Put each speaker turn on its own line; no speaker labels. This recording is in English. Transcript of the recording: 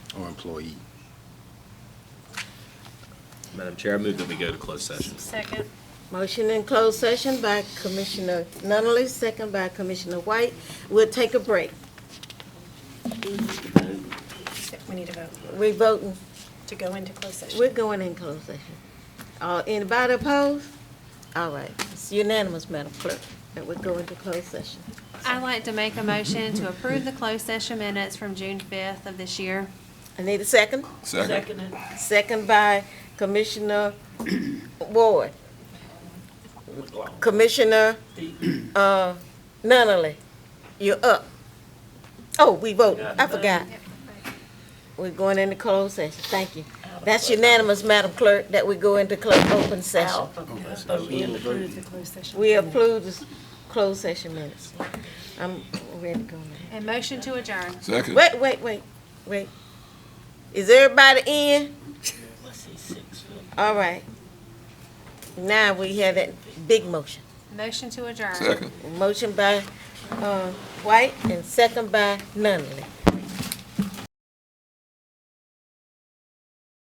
or employee.
Madam Chair, I move that we go to closed session.
Second.
Motion in closed session by Commissioner Nunley, second by Commissioner White. We'll take a break.
We need to vote
We voting,
to go into closed session.
we're going in closed session. Uh, anybody opposed? All right, it's unanimous, Madam Clerk, that we're going to closed session.
I'd like to make a motion to approve the closed session minutes from June 5th of this year.
I need a second? Second. Second by Commissioner Ward. Commissioner, uh, Nunley, you're up. Oh, we voted, I forgot. We're going into closed session, thank you. That's unanimous, Madam Clerk, that we go into close, open session.
Approve the closed session.
We approve this closed session minutes. I'm ready to go now.
And motion to adjourn.
Second.
Wait, wait, wait, wait. Is everybody in? All right. Now we have that big motion.
Motion to adjourn.
Second.
Motion by, uh, White and second by Nunley.